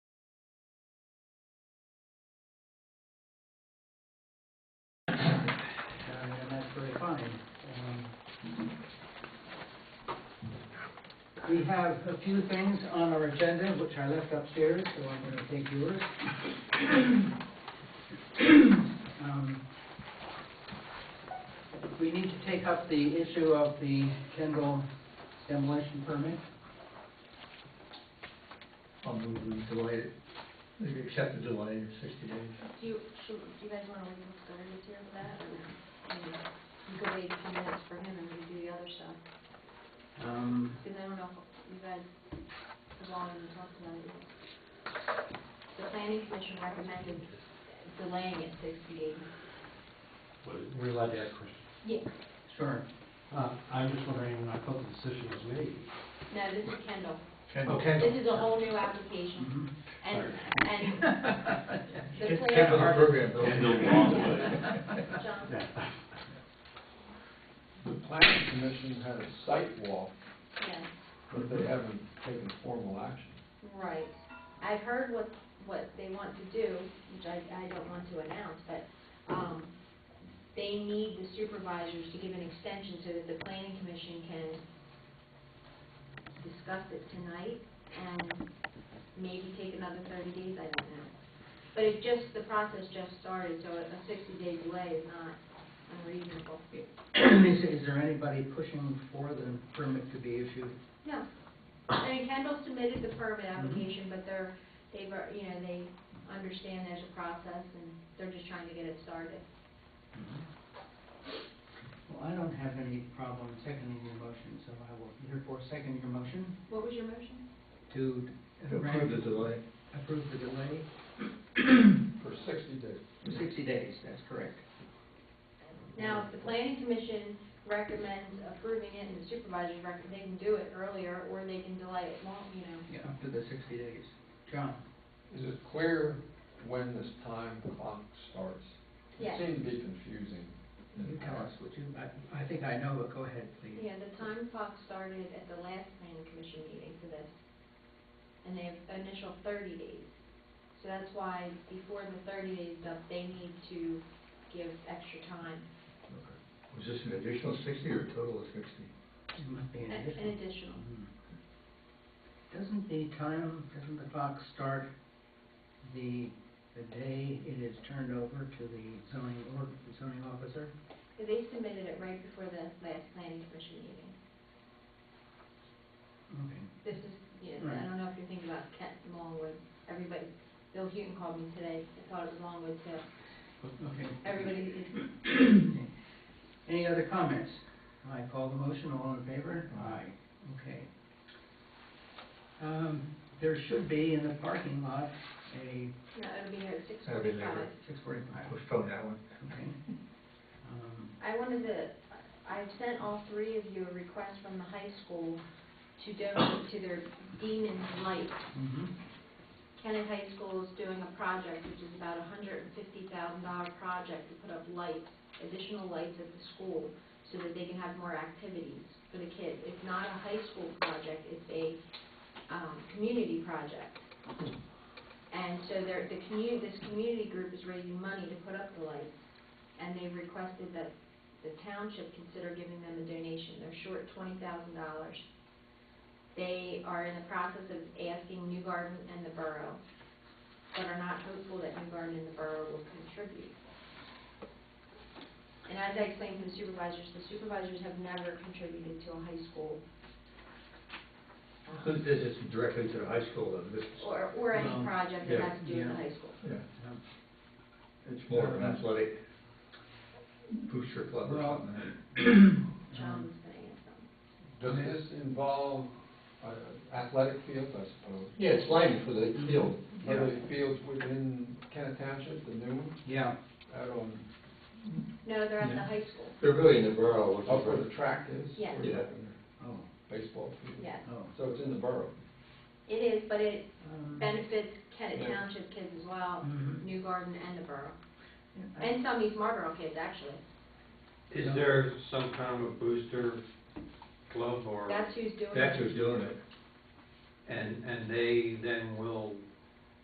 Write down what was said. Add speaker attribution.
Speaker 1: time. Um, Um, We have a few things on our agenda, which I left upstairs, so I'm gonna take yours. Um, We need to take up the issue of the Kendall demolition permit.
Speaker 2: I'll move we delay it, maybe accept the delay of sixty days.
Speaker 3: Do you, should, do you guys wanna leave him started here for that, or, I mean, you could wait a few minutes for him and then do the other stuff?
Speaker 1: Um,
Speaker 3: Because I don't know if you guys, as long as you talked about it. The planning commission recommended delaying it sixty days.
Speaker 4: We're allowed to ask questions.
Speaker 3: Yes.
Speaker 1: Sure.
Speaker 4: Uh, I'm just wondering, I thought the decision was made.
Speaker 3: No, this is Kendall.
Speaker 2: Kendall.
Speaker 4: Okay.
Speaker 3: This is a whole new application,
Speaker 1: Mhm.
Speaker 3: and, and the
Speaker 2: Ken-
Speaker 3: plan.
Speaker 2: Kendall the program
Speaker 5: Kendall
Speaker 2: building.
Speaker 5: Longway.
Speaker 3: John,
Speaker 4: Yeah.
Speaker 6: The planning commission had a site walk,
Speaker 3: yes.
Speaker 6: but they haven't taken formal action.
Speaker 3: Right. I've heard what, what they want to do, which I, I don't want to announce, but, um, they need the supervisors to give an extension so that the planning commission can discuss it tonight and maybe take another thirty days, I don't know. But it just, the process just started, so a sixty-day delay is not unreasonable.
Speaker 1: Is, is there anybody pushing for the permit to be issued?
Speaker 3: No. I mean, Kendall submitted the permit application, but they're, they've, uh, you know, they understand there's a process and they're just trying to get it started.
Speaker 1: Well, I don't have any problem seconding your motion, so I will therefore second your motion
Speaker 3: What was your motion?
Speaker 1: to
Speaker 2: To approve the delay.
Speaker 1: approve the delay
Speaker 6: For sixty days.
Speaker 1: for 60 days, that's correct.
Speaker 3: Now, if the planning commission recommends approving it and the supervisors recommend, they can do it earlier or they can delay it long, you know.
Speaker 1: Yeah, up to the 60 days. John?
Speaker 6: Is it clear when this time clock starts?
Speaker 3: Yes.
Speaker 6: It seemed to be confusing.
Speaker 1: You tell us, would you? I, I think I know, but go ahead, please.
Speaker 3: Yeah, the time clock started at the last planning commission meeting for this, and they have initial thirty days. So that's why before the thirty days is up, they need to give extra time,
Speaker 2: Was this an additional sixty or a total of sixty?
Speaker 1: It must be an
Speaker 3: an
Speaker 1: addition.
Speaker 3: an additional.
Speaker 1: Mhm. Doesn't the time, doesn't the clock start the, the day it is turned over to the zoning, or zoning officer?
Speaker 3: So They submitted it right before the last planning commission meeting.
Speaker 1: Okay.
Speaker 3: This is, you know, I don't know if you're thinking about Kent and Longwood, everybody, Bill Hewton called me today, I thought it was Longwood too.
Speaker 1: Okay.
Speaker 3: Everybody is
Speaker 1: Any other comments? I call the motion, all in favor?
Speaker 2: Aye.
Speaker 1: Okay. Um, there should be in the parking lot a
Speaker 3: no, it'll be here at six
Speaker 2: That'll be later.
Speaker 3: forty-five.
Speaker 1: six forty-five,
Speaker 2: Postpone that one.
Speaker 1: okay? Um,
Speaker 3: I wanted to, I've sent all three of you a request from the high school to donate to their Demons Light.
Speaker 1: mhm.
Speaker 3: Kennett High School is doing a project, which is about a hundred and fifty thousand dollar project to put up lights, additional lights at the school, so that they can have more activities for the kids. It's not a high school project, it's a, um, community project. And so there, the commu, this community group is raising money to put up the lights, and they requested that the township consider giving them a donation. They're short twenty thousand dollars. They are in the process of asking New Garden and the borough, but are not hopeful that New Garden and the borough will contribute. And as I explained to the supervisors, the supervisors have never contributed to a high school. um,
Speaker 2: So this is directly to the high school, and this is,
Speaker 3: Or, or any
Speaker 1: Um,
Speaker 3: project that
Speaker 2: yeah,
Speaker 3: has to do with the
Speaker 1: yeah.
Speaker 3: high school.
Speaker 2: yeah,
Speaker 1: Um,
Speaker 2: it's more of an athletic booster club or
Speaker 1: Well,
Speaker 2: something.
Speaker 1: Um,
Speaker 3: John's gonna ask them.
Speaker 6: Does this involve uh, athletic fields, I suppose?
Speaker 2: Yeah, it's lighting for the field.
Speaker 6: Are
Speaker 1: Yeah.
Speaker 6: there fields within Kennet Township, the new ones,
Speaker 1: Yeah,
Speaker 6: out on,
Speaker 3: No, they're at the
Speaker 2: Yeah.
Speaker 3: high school,
Speaker 2: They're really in Oh, the borough, which
Speaker 6: up where
Speaker 2: is,
Speaker 6: the track is?
Speaker 3: Yeah.
Speaker 6: where you have
Speaker 1: oh,
Speaker 6: a Baseball field.
Speaker 3: yes.
Speaker 1: oh.
Speaker 6: So it's in the borough.
Speaker 3: It is, but it
Speaker 1: Um,
Speaker 3: benefits Kennett
Speaker 6: Yeah.
Speaker 3: Township kids as well,
Speaker 1: mhm.
Speaker 3: New Garden and the borough,
Speaker 1: Yeah, I-
Speaker 3: and some East Marlboro kids, actually.
Speaker 5: Is there some kind of a booster club or,
Speaker 3: That's who's doing it.
Speaker 2: that's who's doing it.
Speaker 5: and, and they then will